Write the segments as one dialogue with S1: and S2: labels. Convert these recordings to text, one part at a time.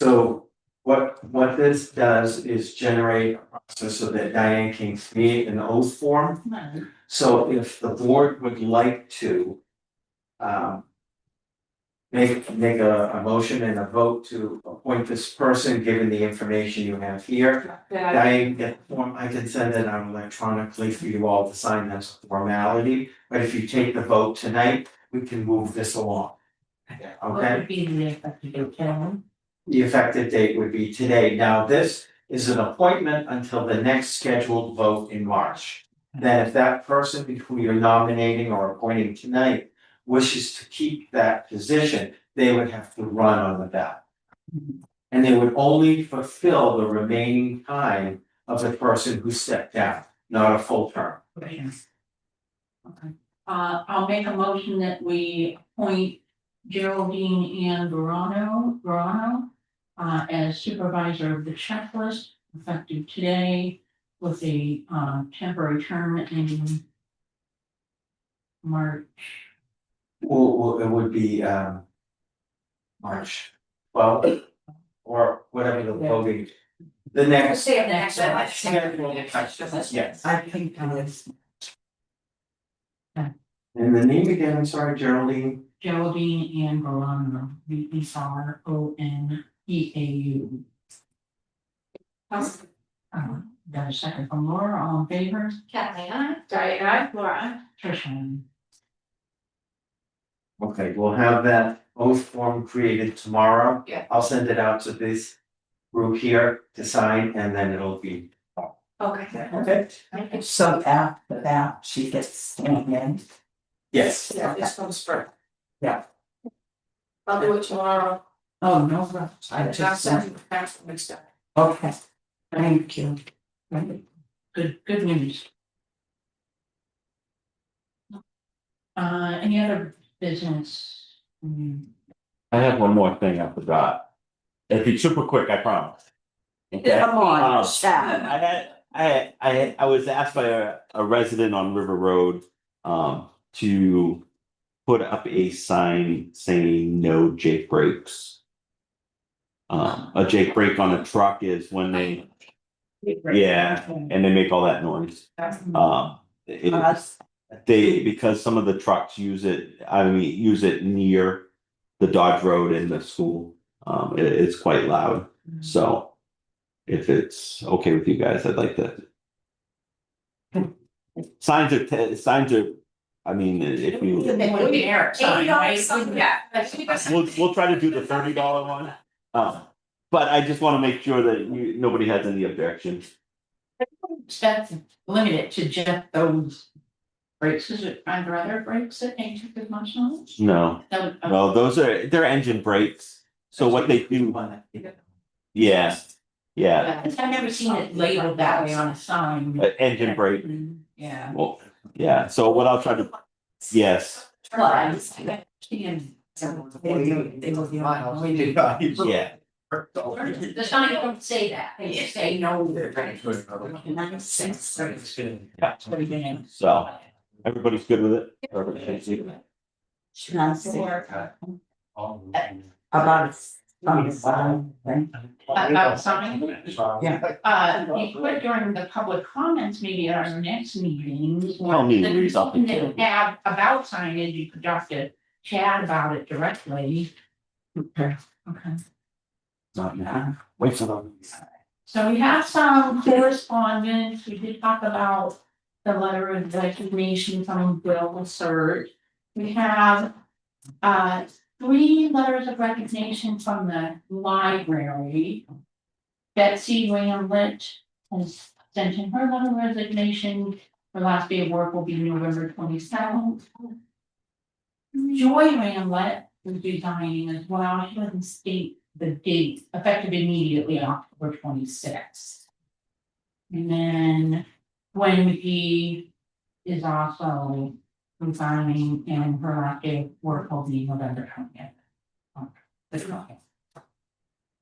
S1: So what what this does is generate a process so that Diane can create an oath form. So if the board would like to um make make a a motion and a vote to appoint this person, given the information you have here.
S2: Uh,
S3: Yeah,
S1: Diane, get the form, I can send it out electronically for you all to sign that's a formality, but if you take the vote tonight, we can move this along. Okay?
S2: What would be the effective date, Karen?
S1: The effective date would be today. Now, this is an appointment until the next scheduled vote in March. Then if that person who you're nominating or appointing tonight wishes to keep that position, they would have to run on the ballot. And they would only fulfill the remaining time of the person who stepped down, not a full term.
S2: Uh, I'll make a motion that we appoint Geraldine Ann Verano, Verano. Uh, as supervisor of the checklist effective today with a, uh, temporary term in. March,
S1: Well, well, it would be um. March, well, or whatever the voting, the next.
S3: Say it next, I like to say it next.
S1: Yes.
S3: I think uh, that is.
S1: And the name again, I'm sorry, Geraldine,
S2: Geraldine Ann Verano, V E R O N E A U. Uh, got a second from Laura, all in favor?
S3: Kathleen, I. Diane, I. Laura.
S2: Tricia.
S1: okay, we'll have that oath form created tomorrow.
S3: Yeah.
S1: I'll send it out to this group here to sign and then it'll be,
S3: Okay.
S1: okay,
S4: So after that, she gets sworn in.
S1: yes.
S3: Yeah, this one's for.
S4: Yeah.
S3: I'll do it tomorrow.
S4: Oh, no, rush. I
S3: And I'll
S4: just,
S3: send you the past mixed up.
S4: okay, thank you.
S2: Right, good, good news. Uh, any other business? Mm,
S5: I have one more thing I forgot. It'd be super quick, I promise. Okay.
S4: Come on,
S5: Um, I had, I, I, I was asked by a, a resident on River Road, um, to put up a sign saying no Jake breaks. Um, a Jake break on a truck is when they, yeah, and they make all that noise. Um, it-
S4: Us,
S5: they, because some of the trucks use it, I mean, use it near the Dodge Road and the school. Um, it, it's quite loud, so if it's okay with you guys, I'd like to. Signs are, te- signs are, I mean, if you,
S2: They wouldn't dare sign, right?
S5: we'll, we'll try to do the thirty dollar one. Um, but I just wanna make sure that you, nobody has any objections.
S2: That's limited to just those brakes, is it, are there other brakes that they took as much on?
S5: No,
S2: That would-
S5: no, those are, they're engine brakes, so what they do, yeah, yeah,
S2: I've never seen it labeled that way on a sign. Mm-hmm.
S5: uh, engine brake.
S2: Yeah.
S5: Well, yeah, so what I'll try to, yes,
S2: Well, I understand.
S4: They do- they do the aisles.
S2: We do.
S5: yeah,
S2: The sign don't say that, they just say no.
S4: Ninety-six.
S5: yeah, so everybody's good with it? Perfect, thank you.
S4: Ninety-six. About, about five, right?
S2: About sign? Uh, we could during the public comments, maybe at our next meeting. or
S5: Tell me,
S2: the
S5: read off the
S2: meeting that
S5: table.
S2: we Have about signage, you could talk to Chad about it directly. Okay. Okay,
S5: Not now. Wait for them.
S2: so we have some correspondence, we did talk about the letter of resignation from Bill Lassard. We have uh three letters of resignation from the library. Betsy Ramlet has sent in her letter of resignation. Her last day of work will be November twenty seventh. Joy Ramlet is resigning as well. She doesn't state the date effective immediately October twenty sixth. And then Gwen McGee is also resigning and her last day of work will be November twentieth.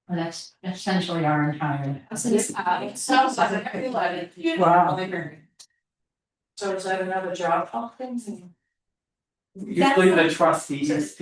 S2: That's essentially our entire.
S3: So this, uh, it sounds like a very loaded-
S4: Wow.
S3: So is that another job, all things and?
S1: Usually the trustees